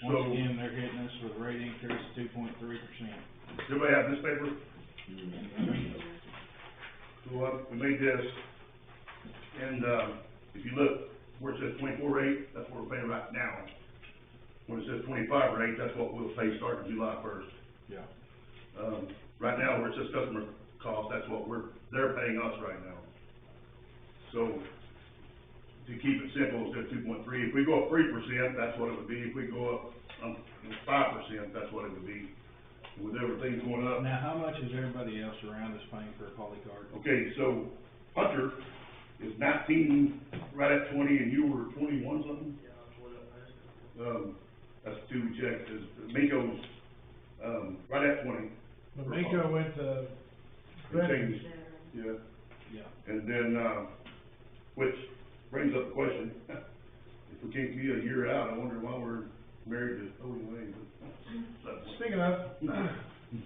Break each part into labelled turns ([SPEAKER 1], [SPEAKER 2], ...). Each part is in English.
[SPEAKER 1] So-
[SPEAKER 2] Once again, they're hitting us with a rate increase of two point three percent.
[SPEAKER 1] Everybody have this paper? Mm-hmm. So, uh, we made this, and, uh, if you look, where it says twenty-four rate, that's what we're paying right now. When it says twenty-five rate, that's what we'll pay starting July first.
[SPEAKER 2] Yeah.
[SPEAKER 1] Um, right now, where it says customer cost, that's what we're, they're paying us right now. So, to keep it simple, instead of two point three, if we go up three percent, that's what it would be, if we go up, um, five percent, that's what it would be. With everything going up,
[SPEAKER 2] Now, how much is everybody else around us paying for a poly card?
[SPEAKER 1] Okay, so Hunter is nineteen, right at twenty, and you were twenty-one something? Um, that's two we checked, is Minko's, um, right at twenty,
[SPEAKER 3] But Mako went to
[SPEAKER 1] it
[SPEAKER 3] Brennan,
[SPEAKER 1] changed, yeah.
[SPEAKER 2] Yeah.
[SPEAKER 1] And then, uh, which brings up the question, if we can't be a year out, I wonder why we're married to Owen Lane.
[SPEAKER 3] speaking of,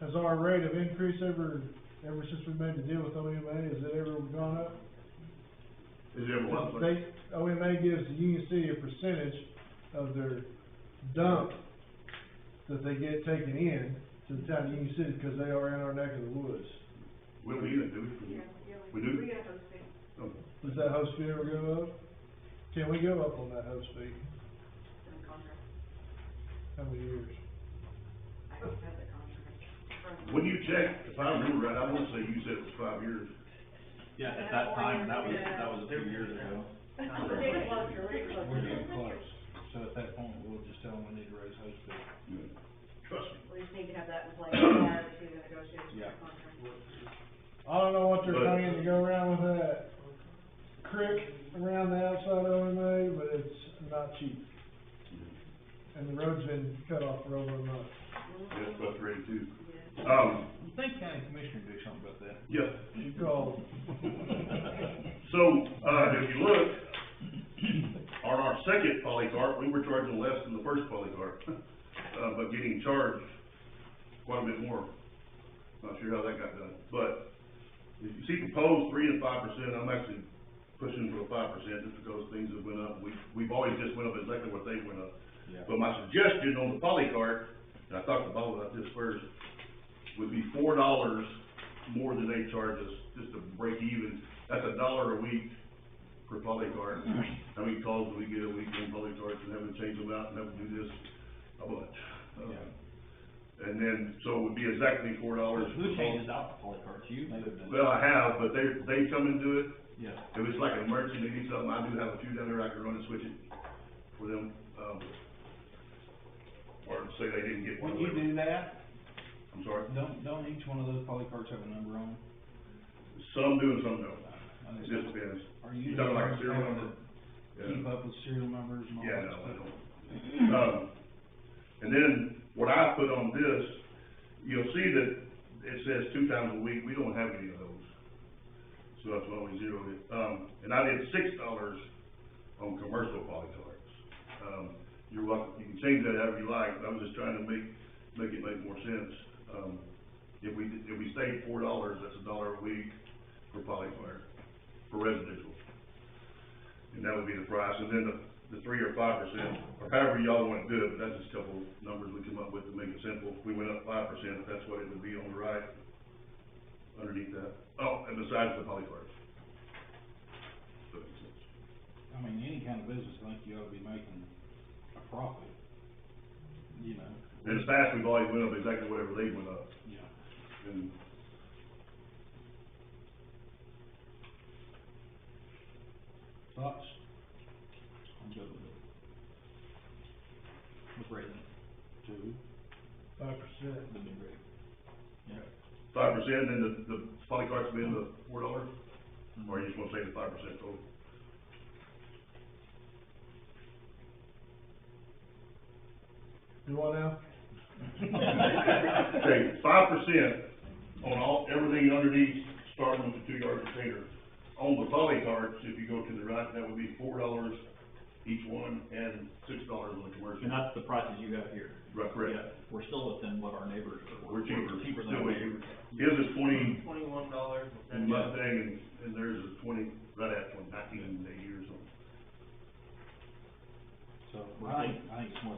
[SPEAKER 3] has our rate of increase ever, ever since we made the deal with OMA, has it ever gone up?
[SPEAKER 1] Is there one, place?
[SPEAKER 3] They, OMA gives the Union City a percentage of their dump that they get taken in to the town of Union City, because they are in our neck of the woods.
[SPEAKER 1] we don't need it, do we?
[SPEAKER 4] Yeah, yeah,
[SPEAKER 1] We do?
[SPEAKER 4] We got those things.
[SPEAKER 3] Does that host fee ever go up? Can we go up on that host fee?
[SPEAKER 4] in the contract.
[SPEAKER 3] How many years?
[SPEAKER 4] I don't have the contract. in front of me.
[SPEAKER 1] When you checked, if I remember right, I wanna say you said it was five years.
[SPEAKER 2] Yeah, at that time, that was, that was a few years ago.
[SPEAKER 4] We're getting closer, we're getting
[SPEAKER 2] We're
[SPEAKER 4] closer.
[SPEAKER 2] getting close. So at that point, we'll just tell them we need to raise host fee.
[SPEAKER 1] Trust me.
[SPEAKER 4] We just need to have that in place prior to the negotiation of
[SPEAKER 2] Yeah.
[SPEAKER 4] the contract.
[SPEAKER 3] I don't know what they're
[SPEAKER 1] But-
[SPEAKER 3] trying to go around with that creek around the outside of OMA, but it's not cheap. And the road's been cut off for over a month.
[SPEAKER 1] Yes,
[SPEAKER 4] Mhm.
[SPEAKER 1] about three too.
[SPEAKER 4] Yeah.
[SPEAKER 1] Um,
[SPEAKER 2] Think county commissioner do something about that.
[SPEAKER 1] yeah,
[SPEAKER 3] You called.
[SPEAKER 1] so, uh, if you look, on our second polycart, we were charging less than the first polycart, uh, but getting charged quite a bit more. Not sure how that got done, but if you see proposed three and five percent, I'm actually pushing for the five percent just because things have went up. We, we've always just went up exactly what they went up.
[SPEAKER 2] Yeah.
[SPEAKER 1] But my suggestion on the polycart, and I talked to Bob about this first, would be four dollars more than they charge us, just to break even. That's a dollar a week per polycart. How many calls do we get a week on polycarts and having to change them out and having to do this, a bunch. Uh, And then, so it would be exactly four dollars.
[SPEAKER 5] Who changes out the poly cards? You?
[SPEAKER 1] Well, I have, but they, they come and do it.
[SPEAKER 2] Yeah.
[SPEAKER 1] If it's like an emergency, they need something, I do have a few down there, I can run and switch it for them, um, or say they didn't get one.
[SPEAKER 2] When you do that,
[SPEAKER 1] I'm sorry,
[SPEAKER 2] don't, don't each one of those poly cards have a number on
[SPEAKER 1] some do and some don't,
[SPEAKER 2] them?
[SPEAKER 1] it just depends.
[SPEAKER 2] Are
[SPEAKER 1] You
[SPEAKER 2] you?
[SPEAKER 1] talking like
[SPEAKER 2] having
[SPEAKER 1] a serial
[SPEAKER 2] to
[SPEAKER 1] number? Yeah,
[SPEAKER 2] Keep up with serial numbers and all
[SPEAKER 1] Yeah,
[SPEAKER 2] that
[SPEAKER 1] no,
[SPEAKER 2] stuff?
[SPEAKER 1] I don't. Um, and then, what I put on this, you'll see that it says two times a week, we don't have any of those. So that's why we zeroed it, um, and I did six dollars on commercial polycards. Um, you're welcome, you can change that however you like, but I was just trying to make, make it make more sense. Um, if we, if we stayed four dollars, that's a dollar a week for polycard, for residential. And that would be the price, and then the, the three or five percent, or however y'all wanna do it, but that's just a couple numbers we come up with to make it simple. If we went up five percent, that's what it would be on the right, underneath that, oh, and besides the polycards. If that makes sense.
[SPEAKER 2] I mean, any kind of business, I think you ought to be making a profit, you know?
[SPEAKER 1] In the past, we've always went up exactly whatever they went up,
[SPEAKER 2] Yeah.
[SPEAKER 1] and.
[SPEAKER 2] Thoughts? I'm good with it. With rating, two,
[SPEAKER 3] Five percent.
[SPEAKER 2] the new rate. Yeah.
[SPEAKER 1] Five percent, and the, the polycarts being the four dollars, or you just wanna say the five percent total?
[SPEAKER 3] You want out?
[SPEAKER 1] Okay, five percent on all, everything underneath, starting with the two-yard container. On the polycarts, if you go to the right, that would be four dollars each one, and six dollars on the commercial.
[SPEAKER 5] And that's the prices you got here.
[SPEAKER 1] Right, correct.
[SPEAKER 5] Yeah, We're still within what our neighbors are.
[SPEAKER 1] We're cheaper,
[SPEAKER 5] Cheaper than
[SPEAKER 1] still
[SPEAKER 5] our
[SPEAKER 1] way
[SPEAKER 5] neighbors.
[SPEAKER 1] His is twenty,
[SPEAKER 6] Twenty-one dollars and seventy cents.
[SPEAKER 1] Mustang, and, and theirs is twenty, right at twenty, nineteen eighty or something.
[SPEAKER 2] So, I think, I think it's more